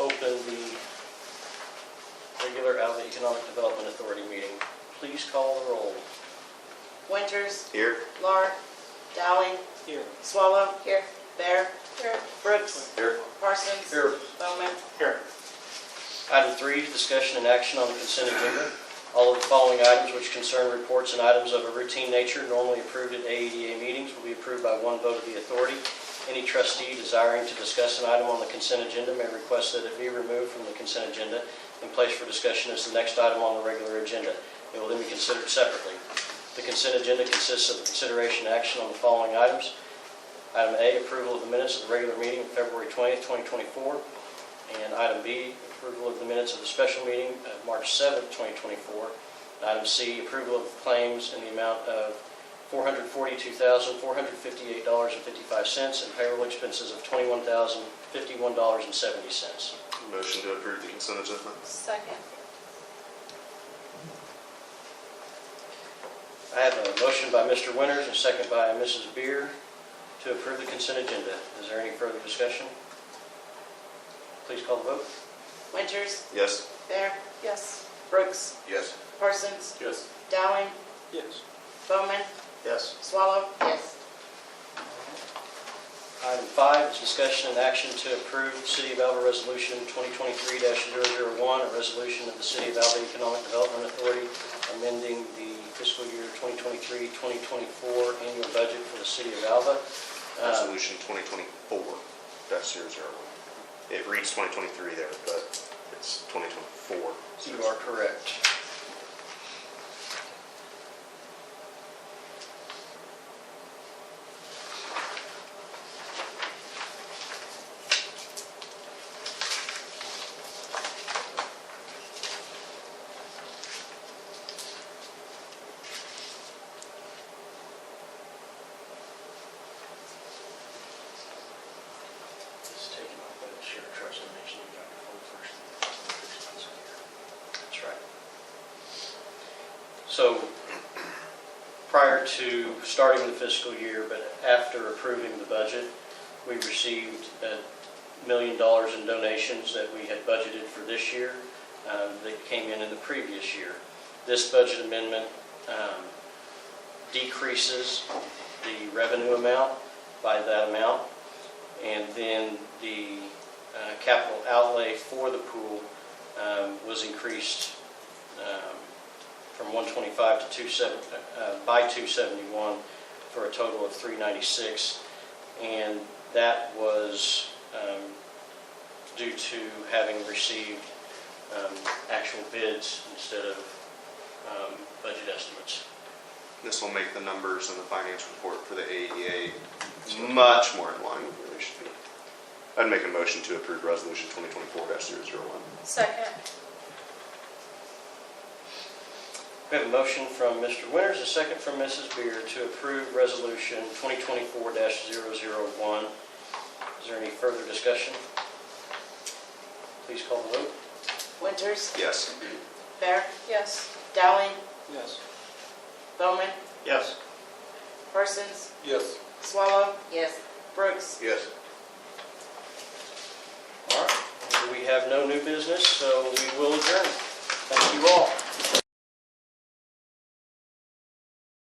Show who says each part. Speaker 1: open the regular Alva Economic Development Authority meeting. Please call the roll.
Speaker 2: Winters,
Speaker 3: Here?
Speaker 2: Lahr, Dowling,
Speaker 1: Here.
Speaker 2: Swallow. Here. Bear. Here. Brooks.
Speaker 3: Here.
Speaker 2: Parsons.
Speaker 1: Here.
Speaker 2: Bowman.
Speaker 1: Here. Item three, discussion and action on the consent agenda. All of the following items which concern reports and items of a routine nature normally approved at AEDA meetings will be approved by one vote of the authority. Any trustee desiring to discuss an item on the consent agenda may request that it be removed from the consent agenda and placed for discussion as the next item on the regular agenda. It will then be considered separately. The consent agenda consists of consideration and action on the following items. Item A, approval of the minutes of the regular meeting of February 20th, 2024. And item B, approval of the minutes of the special meeting of March 7th, 2024. And item C, approval of claims in the amount of $442,458.55 and payroll expenses of $21,051.70.
Speaker 3: Motion to approve the consent agenda?
Speaker 4: Second.
Speaker 1: I have a motion by Mr. Winters and a second by Mrs. Beer to approve the consent agenda. Is there any further discussion? Please call the vote.
Speaker 2: Winters,
Speaker 3: Yes.
Speaker 2: Bear,
Speaker 4: Yes.
Speaker 2: Brooks,
Speaker 3: Yes.
Speaker 2: Parsons,
Speaker 3: Yes.
Speaker 2: Dowling,
Speaker 1: Yes.
Speaker 2: Bowman,
Speaker 3: Yes.
Speaker 2: Swallow. Yes.
Speaker 1: Item five is discussion and action to approve City of Alva Resolution 2023-001, a resolution of the City of Alva Economic Development Authority amending the fiscal year 2023-2024 annual budget for the City of Alva. Uh,
Speaker 3: Resolution 2024 dash 001. It reads 2023 there, but it's 2024.
Speaker 1: You are correct. Just taking off that share trust and nation and Dr. Ford first. That's right. So prior to starting the fiscal year, but after approving the budget, we received a million dollars in donations that we had budgeted for this year um, that came in in the previous year. This budget amendment um, decreases the revenue amount by that amount. And then the uh, capital outlay for the pool um, was increased um, from 125 to 27, uh, by 271 for a total of 396. And that was um, due to having received um, actual bids instead of um, budget estimates.
Speaker 3: This will make the numbers in the finance report for the AEDA much more in line with where they should be. I'd make a motion to approve resolution 2024 dash 001.
Speaker 4: Second.
Speaker 1: We have a motion from Mr. Winters, a second from Mrs. Beer to approve Resolution 2024-001. Is there any further discussion? Please call the vote.
Speaker 2: Winters,
Speaker 3: Yes.
Speaker 2: Bear,
Speaker 4: Yes.
Speaker 2: Dowling,
Speaker 1: Yes.
Speaker 2: Bowman,
Speaker 1: Yes.
Speaker 2: Parsons,
Speaker 3: Yes.
Speaker 2: Swallow. Yes. Brooks,
Speaker 3: Yes.
Speaker 1: All right. We have no new business, so we will adjourn. Thank you all.